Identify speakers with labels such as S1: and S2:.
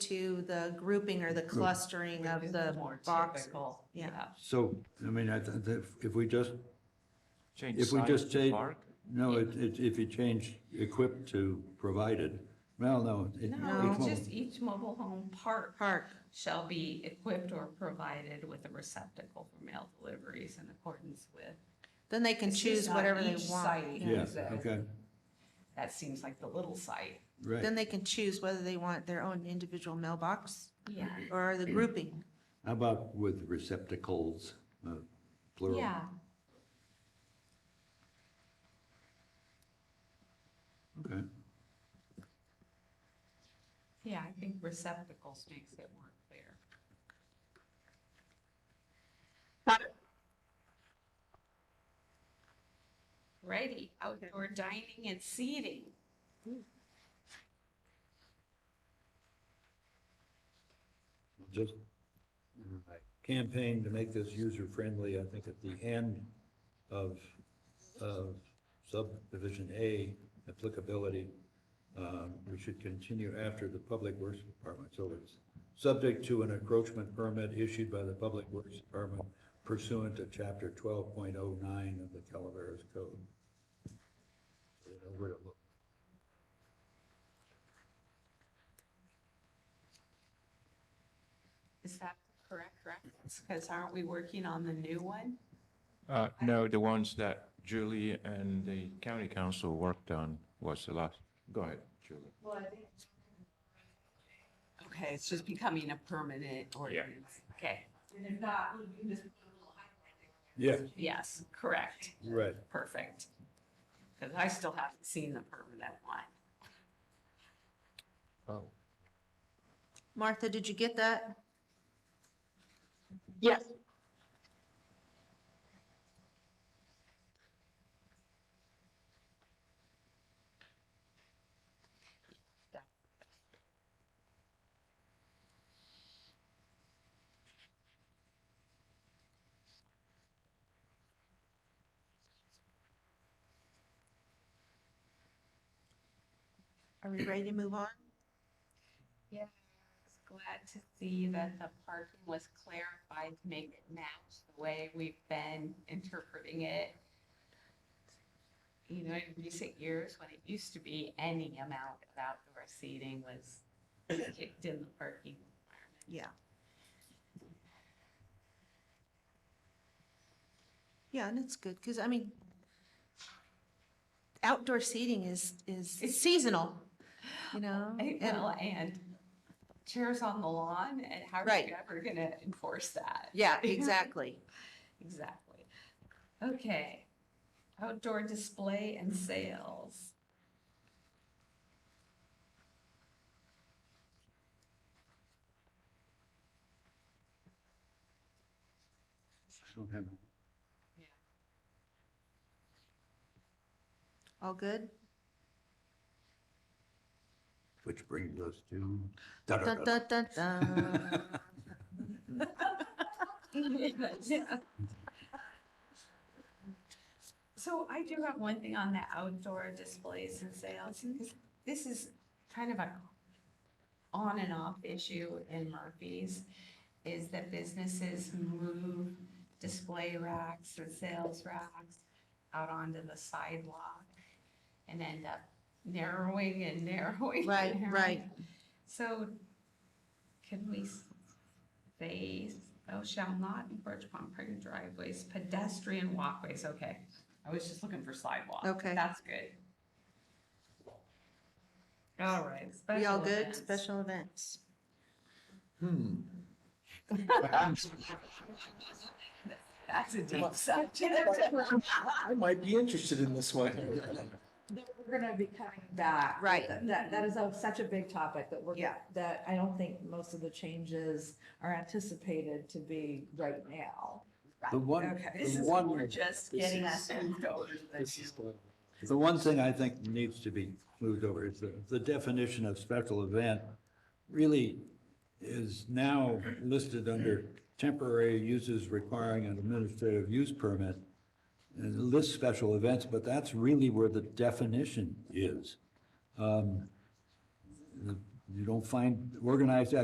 S1: to the grouping or the clustering of the
S2: More
S1: box.
S2: typical,
S1: yeah.
S3: So, I mean, I, th- th- if we just,
S4: Change
S3: if we
S4: size
S3: just
S4: to
S3: change,
S4: park?
S3: no, it, it, if you change equipped to provided, well, no. it-
S2: No,
S3: it
S2: it's
S3: won't.
S2: just each mobile home park
S1: Park,
S2: shall be equipped or provided with a receptacle for mail deliveries in accordance with.
S1: then they can
S2: It's just
S1: choose
S2: on
S1: whatever they
S2: each
S1: want.
S2: site.
S1: yeah.
S3: Yeah,
S2: Yeah.
S3: okay,
S2: That seems like the little site.
S3: right.
S1: Then they can choose whether they want their own individual mailbox
S2: Yeah.
S1: or the grouping.
S3: How about with receptacles, uh, plural?
S2: Yeah.
S3: Okay,
S2: Yeah, I think receptacles makes it more clear. Righty, outdoor dining and seating.
S3: just uh, campaign to make this user-friendly, I think at the end of, of subdivision A applicability, um, we should continue after the Public Works Department, so it's subject to an encroachment permit issued by the Public Works Department pursuant to chapter twelve point oh nine of the Calaveras Code. You know where to look.
S2: Is that correct, reference? Because aren't we working on the new one?
S4: Uh, no, the ones that Julie and the county council worked on was the last, go ahead, Julie.
S2: Okay, it's just becoming a permanent ordinance. Okay. And if not, we can just.
S3: Yeah,
S2: Yes, correct,
S3: right.
S2: perfect. Because I still haven't seen the permanent one.
S4: Oh.
S1: Martha, did you get that?
S5: Yes.
S1: Are we ready to move on?
S2: Yeah, I was glad to see that the parking was clarified to make it match the way we've been interpreting it. You know, in recent years, when it used to be any amount of outdoor seating was kicked in the parking requirement.
S1: Yeah. Yeah, and it's good, because I mean, outdoor seating is, is
S2: It's-
S1: seasonal, you know?
S2: Hey,
S1: and-
S2: Well, and chairs on the lawn, and how are
S1: Right.
S2: you ever gonna enforce that?
S1: Yeah, exactly.
S2: Exactly. Okay. Outdoor display and sales.
S3: Don't have-
S1: All good?
S3: Which brings us to.
S1: Dun, dun, dun, dun.
S2: So I do have one thing on the outdoor displays and sales. because This is kind of a on and off issue in Murphy's, is that businesses move display racks and sales racks out onto the sidewalk and end up narrowing and narrowing. and
S1: Right,
S2: narrowing.
S1: right.
S2: So can we s- say, oh, shall not encroach upon private driveways, pedestrian walkways, okay. I was just looking for sidewalk.
S1: Okay.
S2: That's good. All right.
S1: We all
S2: special
S1: good?
S2: events.
S1: Special events.
S2: That's a deep subject.
S6: I might be interested in this one.
S7: that we're gonna be coming back.
S1: Right.
S7: That, that is a- such a big topic that we're,
S1: Yeah.
S7: that I don't think most of the changes are anticipated to be right now.
S3: The one,
S2: Okay,
S3: the
S2: this is,
S3: one-
S2: we're just
S6: this
S2: getting
S6: is-
S2: us moved over to the
S6: This is the-
S3: The one thing I think needs to be moved over is the, the definition of special event really is now listed under temporary uses requiring an administrative use permit. And it lists special events, but that's really where the definition is. Um, You don't find organized